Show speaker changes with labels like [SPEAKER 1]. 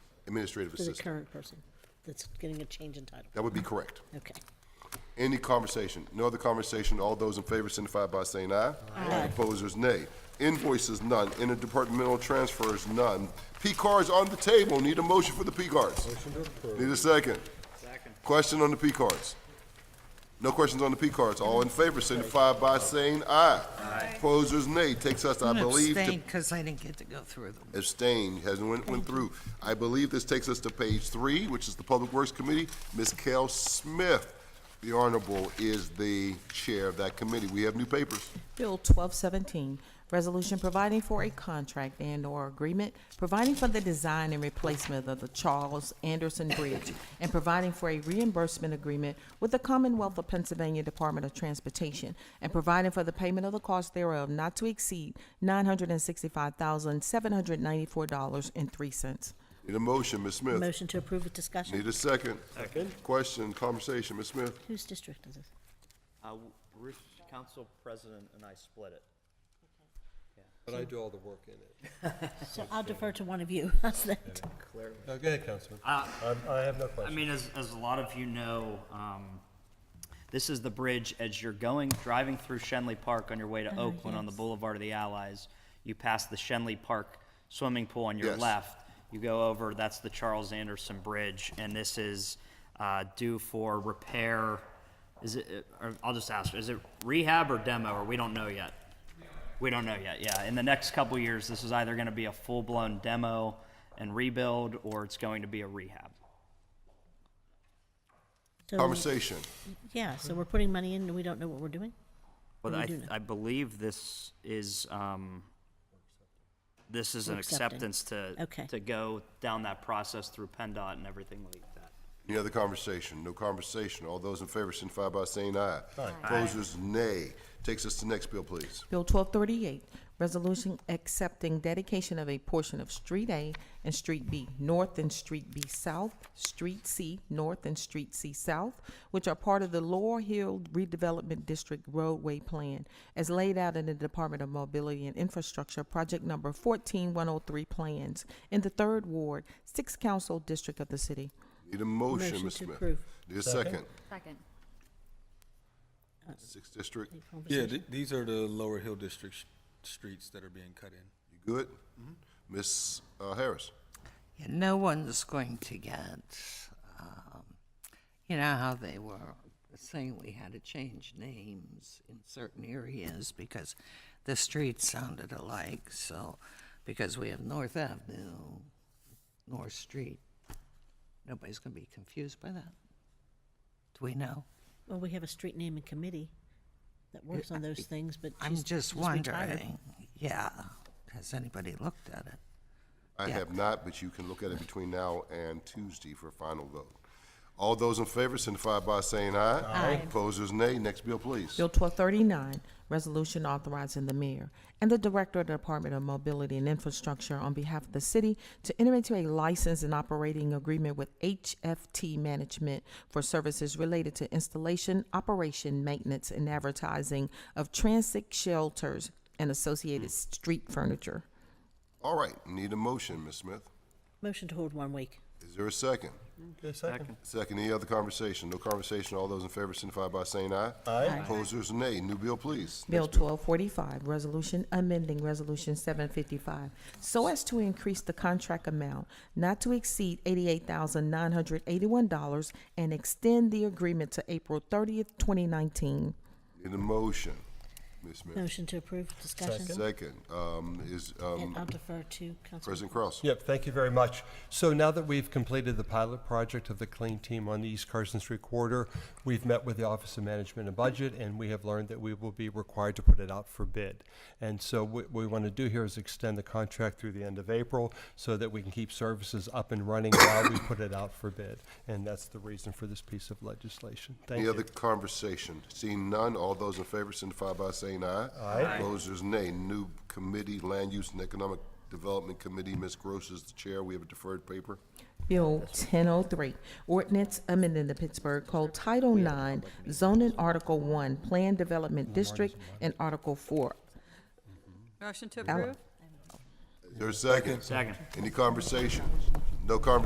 [SPEAKER 1] administrative
[SPEAKER 2] For the
[SPEAKER 1] assistant.
[SPEAKER 2] current person that's getting a change in title.
[SPEAKER 1] That would be correct.
[SPEAKER 2] Okay.
[SPEAKER 1] Any conversation? No other conversation? All those in favor signify by saying aye.
[SPEAKER 2] Aye.
[SPEAKER 1] Opposers, nay. Invoices, none. Interdepartmental transfers, none. P cards on the table. Need a motion for the P cards? Need a second? Second. Question on the P cards? No questions on the P cards. All in favor signify by saying aye. Aye. Opposers, nay. Takes us, I
[SPEAKER 3] I'm
[SPEAKER 1] believe, to
[SPEAKER 3] abstaining because I didn't get to go through them.
[SPEAKER 1] abstain, hasn't went, went through. I believe this takes us to page three, which is the Public Works Committee. Ms. Kell Smith, the Honorable, is the chair of that committee. We have new papers.
[SPEAKER 4] Bill twelve seventeen, resolution providing for a contract and/or agreement, providing for the design and replacement of the Charles Anderson Bridge, and providing for a reimbursement agreement with the Commonwealth of Pennsylvania Department of Transportation, and providing for the payment of the cost thereof not to exceed nine hundred and sixty-five thousand, seven hundred ninety-four dollars and three cents.
[SPEAKER 1] Need a motion, Ms. Smith.
[SPEAKER 2] Motion to approve with
[SPEAKER 1] Need
[SPEAKER 2] discussion.
[SPEAKER 1] a second. Second. Question, conversation, Ms. Smith.
[SPEAKER 2] Whose district is this?
[SPEAKER 5] Uh, Ruth, council president and I split it.
[SPEAKER 6] But I do all the work in it.
[SPEAKER 2] So I'll defer to one of you. How's that?
[SPEAKER 6] No, go ahead, Councilman.
[SPEAKER 7] Uh,
[SPEAKER 6] I'm- I have no
[SPEAKER 7] I
[SPEAKER 6] question.
[SPEAKER 7] mean, as, as a lot of you know, um, this is the bridge as you're going, driving through Shenley Park on your way to Oakland on the Boulevard of the Allies. You pass the Shenley Park swimming pool on your
[SPEAKER 1] Yes.
[SPEAKER 7] left. You go over, that's the Charles Anderson Bridge, and this is uh, due for repair. Is it, uh, or I'll just ask, is it rehab or demo, or we don't know yet? We don't know yet, yeah. In the next couple years, this is either going to be a full blown demo and rebuild, or it's going to be a rehab.
[SPEAKER 2] So-
[SPEAKER 1] Conversation.
[SPEAKER 2] Yeah, so we're putting money in and we don't know what we're doing?
[SPEAKER 7] Well,
[SPEAKER 2] Or we
[SPEAKER 7] I,
[SPEAKER 2] do
[SPEAKER 7] th-
[SPEAKER 2] know?
[SPEAKER 7] I believe this is, um, this is
[SPEAKER 2] We're
[SPEAKER 7] an
[SPEAKER 2] accepting.
[SPEAKER 7] acceptance to,
[SPEAKER 2] Okay.
[SPEAKER 7] to go down that process through PennDOT and everything like that.
[SPEAKER 1] Any other conversation? No conversation. All those in favor signify by saying aye. Aye. Opposers, nay. Takes us to next bill, please.
[SPEAKER 4] Bill twelve thirty-eight, resolution accepting dedication of a portion of Street A and Street B North and Street B South, Street C North and Street C South, which are part of the Laurel Hill Redevelopment District roadway plan as laid out in the Department of Mobility and Infrastructure Project Number fourteen one oh three plans in the third ward, sixth council district of the city.
[SPEAKER 1] Need a motion,
[SPEAKER 2] Motion
[SPEAKER 1] Ms.
[SPEAKER 2] to
[SPEAKER 1] Oh, Smith.
[SPEAKER 2] approve.
[SPEAKER 1] Need a second.
[SPEAKER 8] Second.
[SPEAKER 1] Sixth District,
[SPEAKER 2] Any
[SPEAKER 6] Yeah,
[SPEAKER 2] conversation?
[SPEAKER 6] th- these are the Lower Hill District sh- streets that are being cut in.
[SPEAKER 1] you good? Ms. uh, Harris?
[SPEAKER 3] Yeah, no one's going to get, um, you know how they were saying we had to change names in certain areas because the streets sounded alike. So, because we have North Avenue, North Street, nobody's going to be confused by that. Do we know?
[SPEAKER 2] Well, we have a street naming committee that works on those things, but she's.
[SPEAKER 3] I'm just
[SPEAKER 2] she's retired.
[SPEAKER 3] wondering. Yeah, has anybody looked at it?
[SPEAKER 1] I
[SPEAKER 3] Yeah.
[SPEAKER 1] have not, but you can look at it between now and Tuesday for a final vote. All those in favor signify by saying aye. Aye. Opposers, nay. Next bill, please.
[SPEAKER 4] Bill twelve thirty-nine, resolution authorizing the mayor and the director of the Department of Mobility and Infrastructure on behalf of the city to enter into a license and operating agreement with HFT Management for services related to installation, operation, maintenance, and advertising of transit shelters and associated street furniture.
[SPEAKER 1] All right, need a motion, Ms. Smith.
[SPEAKER 2] Motion to hold one week.
[SPEAKER 1] Is there a second?
[SPEAKER 6] second.
[SPEAKER 1] Second, any other conversation? No conversation. All those in favor signify by saying aye. Aye. Opposers, nay. New bill, please.
[SPEAKER 4] Bill twelve forty-five, resolution amending Resolution seven fifty-five, so as to increase the contract amount not to exceed eighty-eight thousand nine hundred eighty-one dollars and extend the agreement to April thirtieth, twenty nineteen.
[SPEAKER 1] Need a motion, Ms. Smith.
[SPEAKER 2] Motion to approve with discussion.
[SPEAKER 1] Second, um, is, um,
[SPEAKER 2] And I'll defer to Council.
[SPEAKER 1] President Kraus.
[SPEAKER 6] Yep, thank you very much. So now that we've completed the pilot project of the clean team on the East Carson Street corridor, we've met with the Office of Management and Budget, and we have learned that we will be required to put it out for bid. And so what we want to do here is extend the contract through the end of April so that we can keep services up and running while we put it out for bid. And that's the reason for this piece of legislation. Thank
[SPEAKER 1] Any
[SPEAKER 6] you.
[SPEAKER 1] other conversation? Seeing none, all those in favor signify by saying aye. Aye. Opposers, nay. New committee, Land Use and Economic Development Committee, Ms. Gross is the chair. We have a deferred paper.
[SPEAKER 4] Bill ten oh three, ordinance amending the Pittsburgh Code Title Nine, zoning Article One, Plan Development District, and Article Four.
[SPEAKER 8] Motion to
[SPEAKER 4] Ellen.
[SPEAKER 8] approve?
[SPEAKER 1] Is there a second?
[SPEAKER 7] Second.
[SPEAKER 1] Any conversation? No conversation?